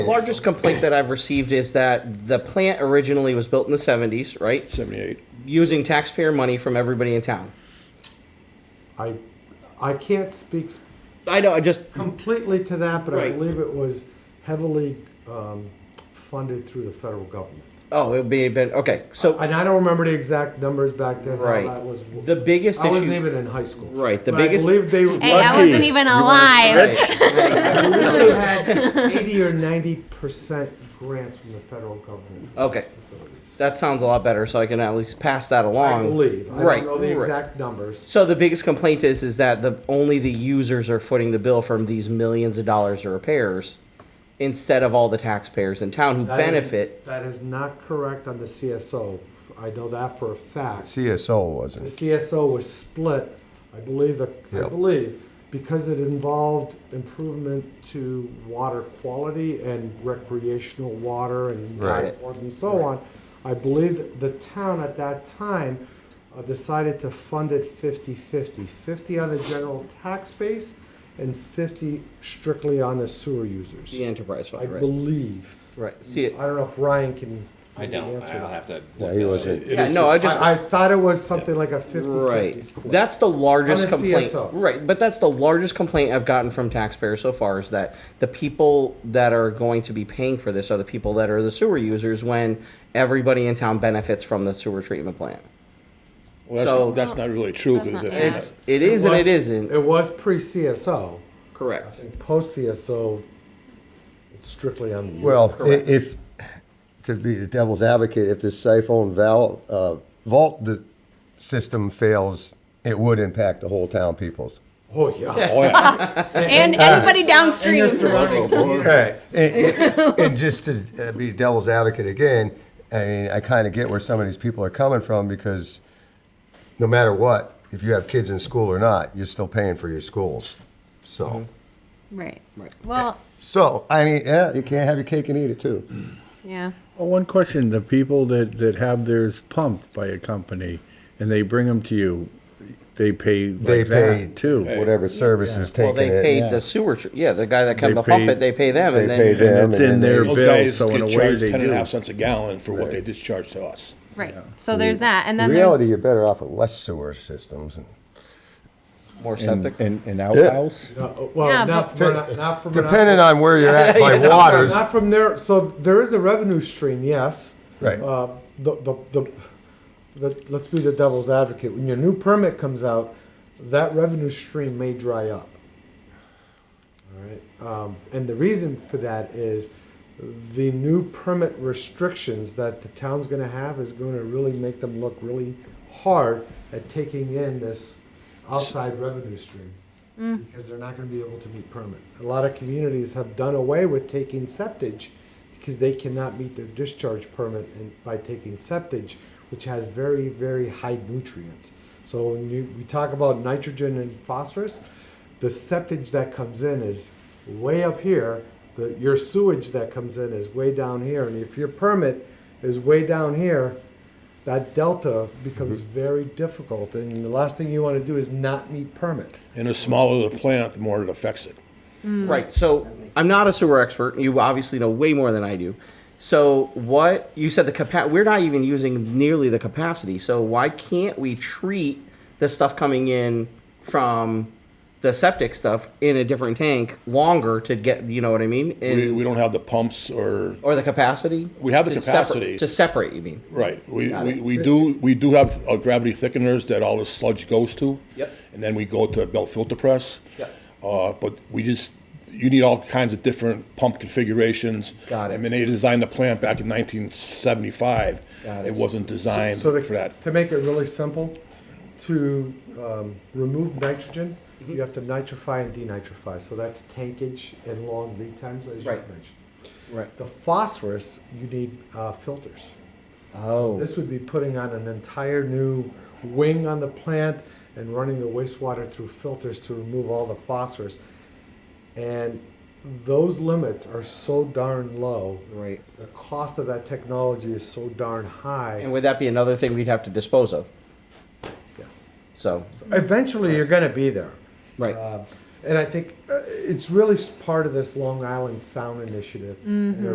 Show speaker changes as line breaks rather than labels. The largest complaint that I've received is that the plant originally was built in the 70s, right?
78.
Using taxpayer money from everybody in town.
I, I can't speak s-
I know, I just,
completely to that, but I
Right.
believe it was heavily um, funded through the federal government.
oh, it would be, been, okay, so,
And I don't remember the exact numbers back then, how
Right.
that was.
The biggest
I wasn't
issues-
even in high school.
Right, the
But I
biggest-
believe they.
Hey, I
Lucky.
wasn't even
right,
alive.
I believe they had eighty or ninety percent grants from the federal government. for
Okay.
Facilities.
that sounds a lot better, so I can at least pass that along.
I believe. I
Right,
don't know the
right.
exact numbers.
So the biggest complaint is, is that the, only the users are footing the bill from these millions of dollars of repairs instead of all the taxpayers in town who
That is-
benefit.
That is not correct on the CSO. I know that for a fact.
CSO
The
wasn't.
CSO was split, I believe, that- I
Yep.
believe, because it involved improvement to water quality and recreational water and so
Right.
forth and so on. I believe that the town at that time uh, decided to fund it 50/50, 50 on the general tax base and 50 strictly on the sewer users.
The enterprise
I
fund, right?
believe.
Right, see it.
I don't know if Ryan can
I
maybe
don't,
answer
I'll
that.
have to.
Yeah, he wasn't.
Yeah, no, I just.
I I thought it was something like a 50/50
Right.
split.
That's the largest
On the
complaint.
CSOs.
Right, but that's the largest complaint I've gotten from taxpayers so far is that the people that are going to be paying for this are the people that are the sewer users when everybody in town benefits from the sewer treatment plant.
Well, that's,
So-
that's not really true
That's
because
not-
if
yeah.
it's
It's it is and
was-
it isn't.
It was pre CSO.
Correct.
Post CSO, it's strictly on the. user.
Well, i- if, to be the devil's advocate, if this siphon val, uh, vault the system fails, it would impact the whole town peoples.
Oh, yeah. Oh,
oh yeah,
And anybody
And
downstream.
your surrounding communities.
And, and- and just to uh, be devil's advocate again, I mean, I kind of get where some of these people are coming from because no matter what, if you have kids in school or not, you're still paying for your schools. So,
Mm-hmm.
Right. Well,
so I mean, yeah, you can't have your cake and eat it too.
yeah.
Well, one question, the people that, that have theirs pumped by a company and they bring them to you, they pay
They
like
pay
that too.
whatever service is
Well,
taken.
they
it.
paid the sewer, tr- yeah, the guy that come
They
to pump
paid-
it, they pay them
they
and
pay
then,
them.
And it's
and then
in their
they-
those
bill,
guys
so in
get
a way
charged
they
ten and a
do.
half cents a gallon for what they discharge to us.
Right. So there's that. And
In
then
reality,
there's,
you're better off with less sewer systems. And
more
And,
septic.
and, and outhouse?
No,
Yeah,
Uh, Well,
but-
not from, not- not from.
depending on where you're at by
Yeah.
waters,
Not from there, so there is a revenue stream, yes.
Right.
Uh, The, the, the, the- let's be the devil's advocate. When your new permit comes out, that revenue stream may dry up. All right, um, and the reason for that is the new permit restrictions that the town's gonna have is gonna really make them look really hard at taking in this outside revenue stream. Because they're not gonna be able to meet permit. A lot of communities have done away with taking septage because they cannot meet their discharge permit and by taking septage, which has very, very high nutrients. So when you, we talk about nitrogen and phosphorus, the septage that comes in is way up here. The, your sewage that comes in is way down here. And if your permit is way down here, that delta becomes very difficult. And the last thing you want to do is not meet permit.
And the smaller the plant, the more it affects it.
Right. So I'm not a sewer expert. You obviously know way more than I do. So what you said the capa- we're not even using nearly the capacity. So why can't we treat the stuff coming in from the septic stuff in a different tank longer to get you know what I mean? And,
We, we don't have the pumps or
or the capacity?
We have the
to separ-
capacity.
to separate, you mean?
right. We,
Got
we,
it.
we do we do have uh, gravity thickeners that all the sludge goes to.
Yep.
And then we go to a belt filter press.
Yep.
Uh, but we just you need all kinds of different pump configurations.
Got it.
I mean, they designed the plant back in 1975.
Got it.
wasn't designed
So to,
for that.
to make it really simple, to um, remove nitrogen,
Mm-hmm.
you have to nitrify and denitrify. So that's tankage and long lead times, as
Right.
you mentioned.
Right.
The phosphorus, you need uh, filters.
Oh.
This would be putting on an entire new wing on the plant and running the wastewater through filters to remove all the phosphorus. And those limits are so darn low.
Right.
The cost of that technology is so darn high.
and would that be another thing we'd have to dispose of?
Yeah.
So
Eventually, you're going to be there.
right.
Uh, and I think uh, it's really s- part of this Long Island Sound Initiative.